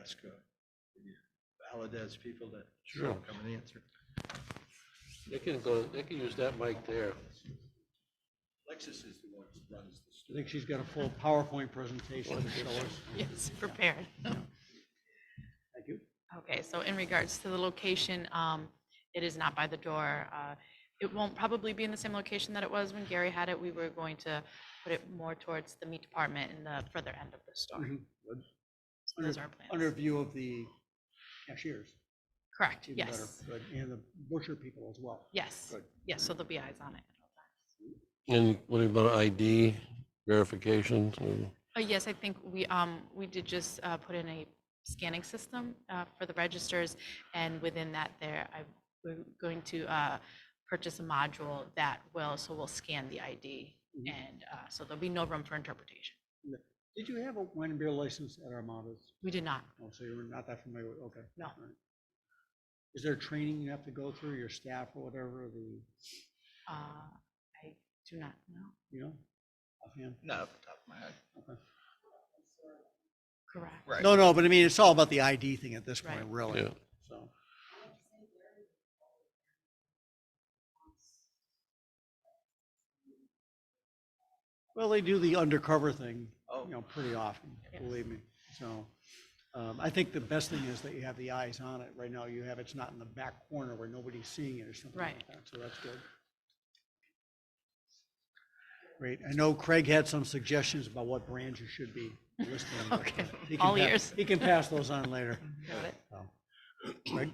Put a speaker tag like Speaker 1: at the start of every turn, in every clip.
Speaker 1: ask uh, Valadez people to
Speaker 2: Sure.
Speaker 1: come and answer.
Speaker 2: They can go, they can use that mic there.
Speaker 1: Lexus is the one who runs the
Speaker 3: I
Speaker 1: store.
Speaker 3: think she's got a full PowerPoint presentation to show us.
Speaker 4: Yes, prepared.
Speaker 3: Thank you.
Speaker 4: Okay, so in regards to the location, um, it is not by the door. Uh, It won't probably be in the same location that it was when Gary had it. We were going to put it more towards the meat department in the further end of the store.
Speaker 3: Mhm.
Speaker 4: So Those are our plans.
Speaker 3: Under view of the cashiers.
Speaker 4: Correct,
Speaker 3: even better,
Speaker 4: yes,
Speaker 3: Good, and the butcher people as well.
Speaker 4: yes,
Speaker 3: Good.
Speaker 4: yes, so there'll be eyes on it. at all times.
Speaker 2: And what about ID verification?
Speaker 4: Uh, Yes, I think we, um, we did just uh, put in a scanning system uh, for the registers, and within that there, I, we're going to uh, purchase a module that will, so we'll scan the ID,
Speaker 3: Mhm.
Speaker 4: and uh, so there'll be no room for interpretation.
Speaker 3: Did you have a wine and beer license at Armada's?
Speaker 4: We did not,
Speaker 3: Oh, so you're not that familiar with, okay.
Speaker 4: No.
Speaker 3: all right. Is there training you have to go through, your staff or whatever, the,
Speaker 4: uh, I do not know,
Speaker 3: you know? offhand?
Speaker 5: Not off the top of my head.
Speaker 4: correct.
Speaker 5: Right.
Speaker 3: No, no, but I mean, it's all about the ID thing at this point,
Speaker 4: Right.
Speaker 3: really,
Speaker 2: Yeah.
Speaker 3: so. Well, they do the undercover thing,
Speaker 5: Oh.
Speaker 3: you know, pretty often,
Speaker 4: Yeah.
Speaker 3: believe me, so. Um, I think the best thing is that you have the eyes on it. Right now, you have, it's not in the back corner where nobody's seeing it or something like
Speaker 4: Right.
Speaker 3: that, so that's good. Great, I know Craig had some suggestions about what brands you should be listing. but, uh,
Speaker 4: Okay,
Speaker 3: he can
Speaker 4: all
Speaker 3: pa-
Speaker 4: ears.
Speaker 3: He can pass those on later.
Speaker 4: Got it.
Speaker 3: So, Craig?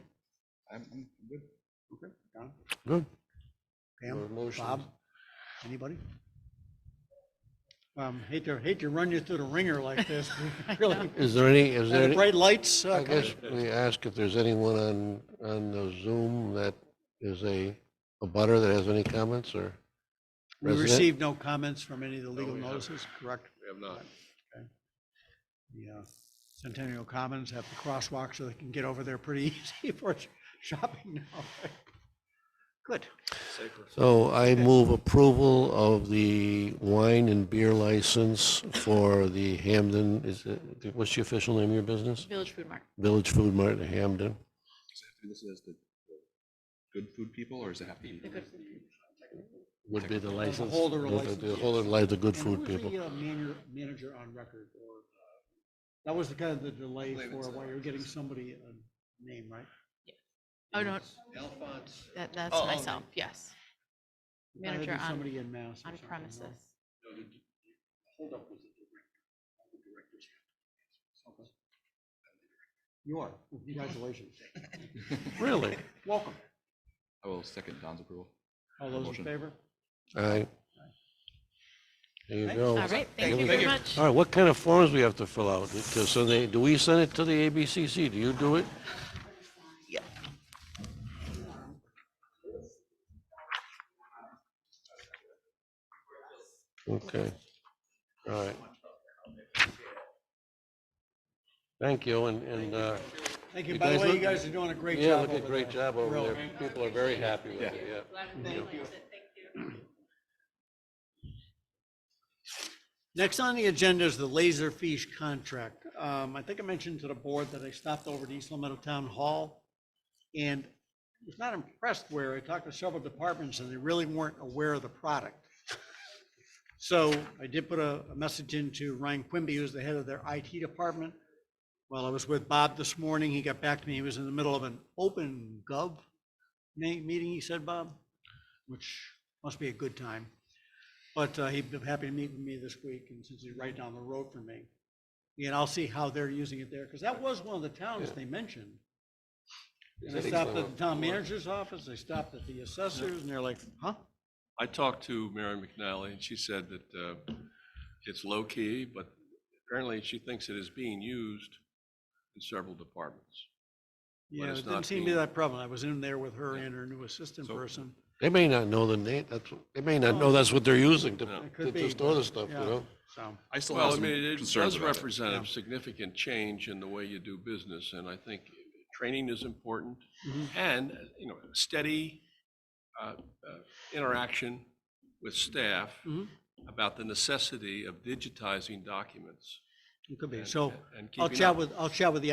Speaker 5: I'm, I'm good.
Speaker 3: Okay. Don?
Speaker 2: Good. Your
Speaker 3: Pam?
Speaker 2: motion.
Speaker 3: Bob? Anybody? Um, hate to, hate to run you through the ringer like this, really.
Speaker 2: Is there any, is
Speaker 3: And
Speaker 2: there
Speaker 3: the
Speaker 2: any,
Speaker 3: bright lights, uh,
Speaker 2: I
Speaker 3: coming.
Speaker 2: guess we ask if there's anyone on, on the Zoom that is a, a butter that has any comments or?
Speaker 3: we
Speaker 2: resident?
Speaker 3: received no comments from any of the legal
Speaker 2: we haven't.
Speaker 3: notices, correct?
Speaker 2: We have not.
Speaker 3: The uh, Centennial Commons have the crosswalk so they can get over there pretty easy for sh- shopping now. Good.
Speaker 2: So I move approval of the wine and beer license for the Hamden, is it, what's the official name of your business?
Speaker 4: Village Food Mart,
Speaker 2: Village Food Mart in Hamden.
Speaker 6: This is the the good food people, or does it have to be?
Speaker 4: the good food.
Speaker 2: Would be the
Speaker 3: license.
Speaker 2: license.
Speaker 3: holder of license,
Speaker 2: The holder of li- the good
Speaker 3: And
Speaker 2: food
Speaker 3: who was
Speaker 2: people.
Speaker 3: the uh, manager, manager on record or, uh, that was the kind of the delay
Speaker 6: believe
Speaker 3: for
Speaker 6: it's,
Speaker 3: why
Speaker 6: uh,
Speaker 3: you're getting somebody a name, right?
Speaker 4: Oh,
Speaker 3: Mm-hmm.
Speaker 4: no,
Speaker 1: Alphonse,
Speaker 4: that, that's
Speaker 5: Oh, oh,
Speaker 4: myself, yes,
Speaker 3: You gotta
Speaker 4: Manager
Speaker 3: do
Speaker 4: on-
Speaker 3: Somebody in Mass. or
Speaker 4: on
Speaker 3: something, no?
Speaker 4: premises.
Speaker 1: no, the d- hold up was the director. All the directors have to answer.
Speaker 3: You are. Congratulations.
Speaker 2: Really?
Speaker 3: Welcome.
Speaker 6: I will second Don's approval.
Speaker 3: All those in
Speaker 6: Motion.
Speaker 3: favor?
Speaker 2: All right. There you
Speaker 3: Thanks.
Speaker 2: go.
Speaker 4: All right,
Speaker 2: Here
Speaker 4: thank you
Speaker 2: we
Speaker 4: very
Speaker 2: go.
Speaker 4: much.
Speaker 2: All right, what kind of forms we have to fill out? Because so they, do we send it to the ABCC? Do you do it? Yeah. Okay. All right. Thank you, and, and, uh,
Speaker 3: Thank you.
Speaker 2: You
Speaker 3: By the
Speaker 2: guys
Speaker 3: way, you
Speaker 2: look-
Speaker 3: guys are doing a great
Speaker 2: yeah,
Speaker 3: job
Speaker 2: look
Speaker 3: over
Speaker 2: at
Speaker 3: there.
Speaker 2: great job over
Speaker 3: Really.
Speaker 2: there. People are very happy with it, yeah.
Speaker 3: Next on the agenda is the laser fiche contract. Um, I think I mentioned to the board that I stopped over to East Long Town Hall and was not impressed where I talked to several departments and they really weren't aware of the product. So I did put a, a message into Ryan Quimby, who's the head of their IT department. While I was with Bob this morning, he got back to me. He was in the middle of an open gov ma- meeting, he said, Bob, which must be a good time. But uh, he'd been happy to meet with me this week, and since he's right down the road from me. And I'll see how they're using it there, because that was one of the towns
Speaker 2: Yeah.
Speaker 3: they mentioned.
Speaker 2: Is
Speaker 3: And I
Speaker 2: that
Speaker 3: stopped
Speaker 2: East
Speaker 3: at the
Speaker 2: Long-
Speaker 3: town manager's office, I stopped at the assessors, and they're like, huh?
Speaker 7: I talked to Mary McNally, and she said that uh, it's low-key, but apparently she thinks it is being used in several departments.
Speaker 3: Yeah, it
Speaker 7: it's
Speaker 3: didn't
Speaker 7: not
Speaker 3: seem to be
Speaker 7: being-
Speaker 3: that problem. I was in there with her and her new assistant
Speaker 6: So-
Speaker 3: person.
Speaker 2: They may not know the name, that's, what- they may not know that's what they're using to,
Speaker 7: No.
Speaker 3: It
Speaker 2: to
Speaker 3: could be,
Speaker 2: to store
Speaker 3: but-
Speaker 2: the stuff, you
Speaker 3: yeah,
Speaker 2: know?
Speaker 3: So,
Speaker 6: I still have
Speaker 7: Well, I
Speaker 6: some
Speaker 7: mean, it
Speaker 6: concerns
Speaker 7: does
Speaker 6: about it.
Speaker 7: represent
Speaker 3: Yeah.
Speaker 7: a significant change in the way you do business, and I think training is important.
Speaker 3: Mhm.
Speaker 7: And, you know, steady uh, uh, interaction with staff
Speaker 3: Mhm.
Speaker 7: about the necessity of digitizing documents
Speaker 3: it could be.
Speaker 7: and-
Speaker 3: So
Speaker 7: and
Speaker 3: I'll
Speaker 7: keeping
Speaker 3: chat
Speaker 7: up.
Speaker 3: with, I'll chat with the